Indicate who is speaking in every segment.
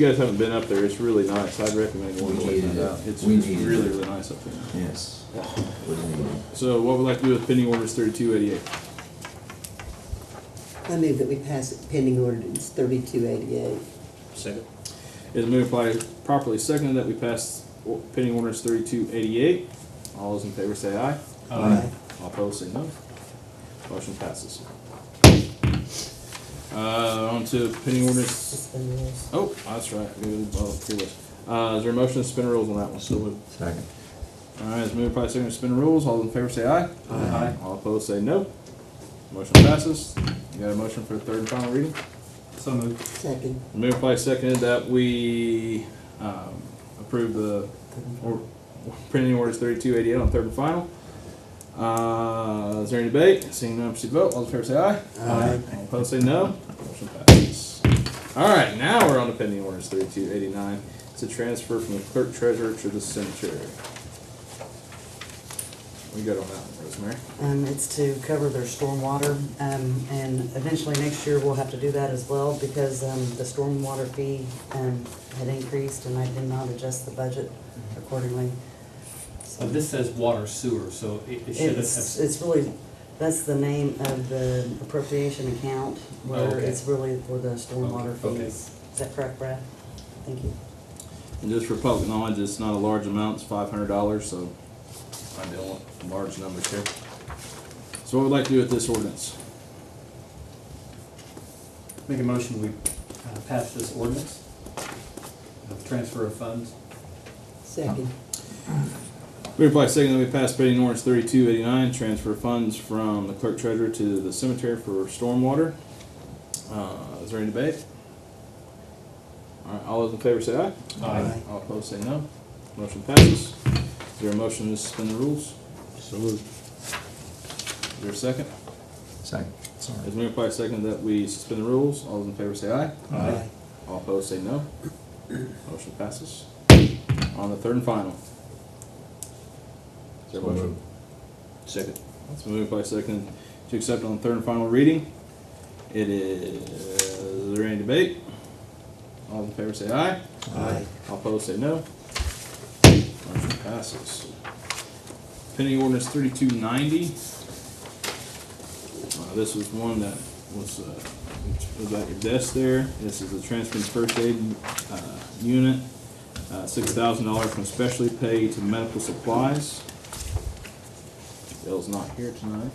Speaker 1: you guys haven't been up there, it's really nice. I'd recommend one.
Speaker 2: We
Speaker 1: more
Speaker 2: need it
Speaker 1: time.
Speaker 2: up.
Speaker 1: It's
Speaker 2: We
Speaker 1: it's
Speaker 2: need it
Speaker 1: really,
Speaker 2: up.
Speaker 1: really nice up there.
Speaker 2: Yes. What do you mean?
Speaker 1: So what we'd like to do with pending orders thirty-two eighty-eight.
Speaker 3: I move that we pass it pending ordinance thirty-two eighty-eight.
Speaker 4: Second.
Speaker 1: It's moved by properly seconded that we pass o- pending orders thirty-two eighty-eight. All those in favor say aye.
Speaker 3: Aye.
Speaker 1: All opposed say no. Motion passes. Uh, on to pending orders
Speaker 3: Suspend rules.
Speaker 1: Oh, that's right. We didn't bother to do it. Uh, is there a motion to suspend rules on that one? So
Speaker 2: Second.
Speaker 1: All right, it's moved by second to suspend rules. All in favor say aye.
Speaker 2: Aye.
Speaker 1: All opposed say no. Motion passes. You got a motion for third and final reading?
Speaker 4: So moved.
Speaker 3: Second.
Speaker 1: Moved by second that we, um, approve the, or, printing orders thirty-two eighty-eight on third and final. Uh, is there any debate? Seeing none, proceed to vote. All in favor say aye.
Speaker 3: Aye.
Speaker 1: All opposed say no. Motion passes. All right, now we're on to pending orders thirty-two eighty-nine. It's a transfer from the clerk treasurer to the cemetery. We got on that one, Rosemary.
Speaker 5: Um, it's to cover their stormwater, um, and eventually next year we'll have to do that as well because, um, the stormwater fee, um, had increased and I did not adjust the budget accordingly. So
Speaker 4: Uh, This says water sewer, so it it should
Speaker 5: It's,
Speaker 4: have,
Speaker 5: it's really, that's the name of the appropriation account
Speaker 4: Oh,
Speaker 5: where
Speaker 4: okay.
Speaker 5: it's really for the stormwater
Speaker 4: Okay, okay.
Speaker 5: fees. Is that correct, Brad? Thank you.
Speaker 1: And just for public knowledge, it's not a large amount, it's five hundred dollars, so I don't want large numbers here. So what we'd like to do with this ordinance?
Speaker 4: make a motion, we uh, pass this ordinance of transfer of funds.
Speaker 3: Second.
Speaker 1: Moved by second that we pass pending ordinance thirty-two eighty-nine, transfer funds from the clerk treasurer to the cemetery for stormwater. Uh, is there any debate? All right, all those in favor say aye.
Speaker 3: Aye.
Speaker 1: All opposed say no. Motion passes. Is there a motion to suspend the rules? So moved. Is there a second?
Speaker 2: Second. Sorry.
Speaker 1: It's moved by second that we suspend the rules. All those in favor say aye.
Speaker 3: Aye.
Speaker 1: All opposed say no. Motion passes. On the third and final. Is there a
Speaker 2: So
Speaker 1: motion?
Speaker 2: moved.
Speaker 1: Second. It's moved by second to accept on third and final reading. It is, is there any debate? All in favor say aye.
Speaker 3: Aye.
Speaker 1: All opposed say no. Motion passes. Pending ordinance thirty-two ninety. Uh, this was one that was, uh, was at your desk there. This is the transferring first aid, uh, unit, uh, six thousand dollars from specialty pay to medical supplies. Bill's not here tonight.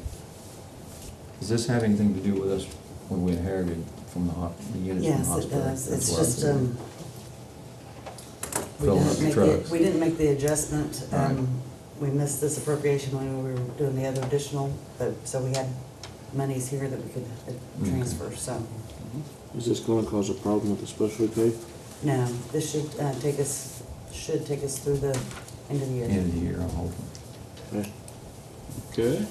Speaker 2: Does this have anything to do with us when we inherited from the hos- the unit from the
Speaker 5: Yes, it
Speaker 2: hospital?
Speaker 5: does.
Speaker 2: That's
Speaker 5: It's
Speaker 2: what I
Speaker 5: just,
Speaker 2: figured.
Speaker 5: um, we
Speaker 2: Filling
Speaker 5: didn't
Speaker 2: up the
Speaker 5: make the-
Speaker 2: trucks.
Speaker 5: We didn't make the adjustment. Um,
Speaker 2: Right.
Speaker 5: We missed this appropriation when we were doing the other additional, but, so we had monies here that we could uh,
Speaker 2: Okay.
Speaker 5: transfer, so.
Speaker 6: Is this gonna cause a problem with the special pay?
Speaker 5: No, this should uh, take us, should take us through the end of the year.
Speaker 2: End of the year, I'm hoping.
Speaker 6: Okay.
Speaker 1: Okay.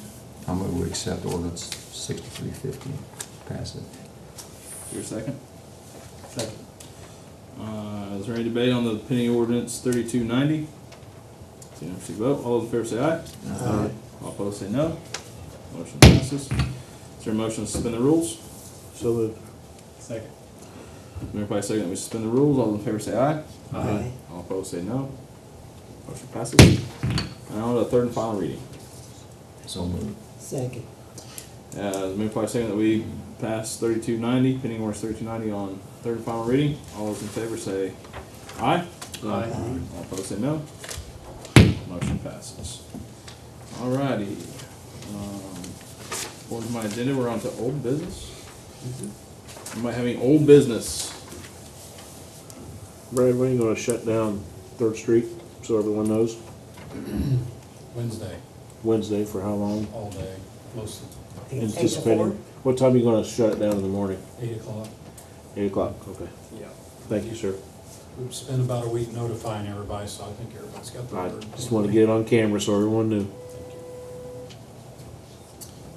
Speaker 2: I'm going to accept ordinance sixty-three fifty, pass it.
Speaker 1: Your second.
Speaker 4: Second.
Speaker 1: Uh, is there any debate on the pending ordinance thirty-two ninety? See, if you vote, all those in favor say aye.
Speaker 5: Uh,
Speaker 3: Aye.
Speaker 1: All opposed say no. Motion passes. Is there a motion to suspend the rules?
Speaker 6: So moved.
Speaker 4: Second.
Speaker 1: Moved by second that we suspend the rules. All those in favor say aye.
Speaker 3: Aye.
Speaker 1: All opposed say no. Motion passes. And on to the third and final reading.
Speaker 2: So moved.
Speaker 3: Second.
Speaker 1: Uh, moved by second that we pass thirty-two ninety, pending ordinance thirty-two ninety on third and final reading. All those in favor say aye.
Speaker 4: Aye.
Speaker 1: All opposed say no. Motion passes. Alrighty. Um, According to my agenda, we're on to old business. Anybody have any old business?
Speaker 6: Brad, when are you gonna shut down Third Street, so everyone knows?
Speaker 7: Wednesday,
Speaker 6: Wednesday for how long?
Speaker 7: all day, most of
Speaker 5: Eight to
Speaker 6: Anticipating.
Speaker 5: four?
Speaker 6: What time are you gonna shut it down in the morning?
Speaker 7: eight o'clock.
Speaker 6: Eight o'clock, okay.
Speaker 7: Yeah.
Speaker 6: Thank you, sir.
Speaker 7: We've spent about a week notifying everybody, so I think everybody's got the
Speaker 6: I
Speaker 7: word.
Speaker 6: just wanna get it on camera so everyone knew.
Speaker 7: Thank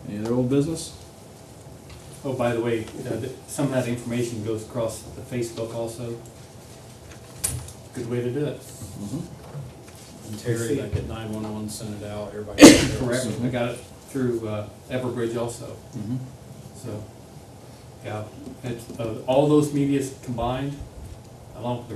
Speaker 7: you.
Speaker 1: Any other old business?
Speaker 4: Oh, by the way, uh, th- some of that information goes across the Facebook also. Good way to do it.
Speaker 1: Mm-hmm.
Speaker 7: And Terry, like at nine-one-one, sent it out, everybody. got theirs.
Speaker 4: Correct, I got it through uh, Everbridge also,
Speaker 1: Mhm.
Speaker 4: so, yeah. It's, uh, all those medias combined, along with the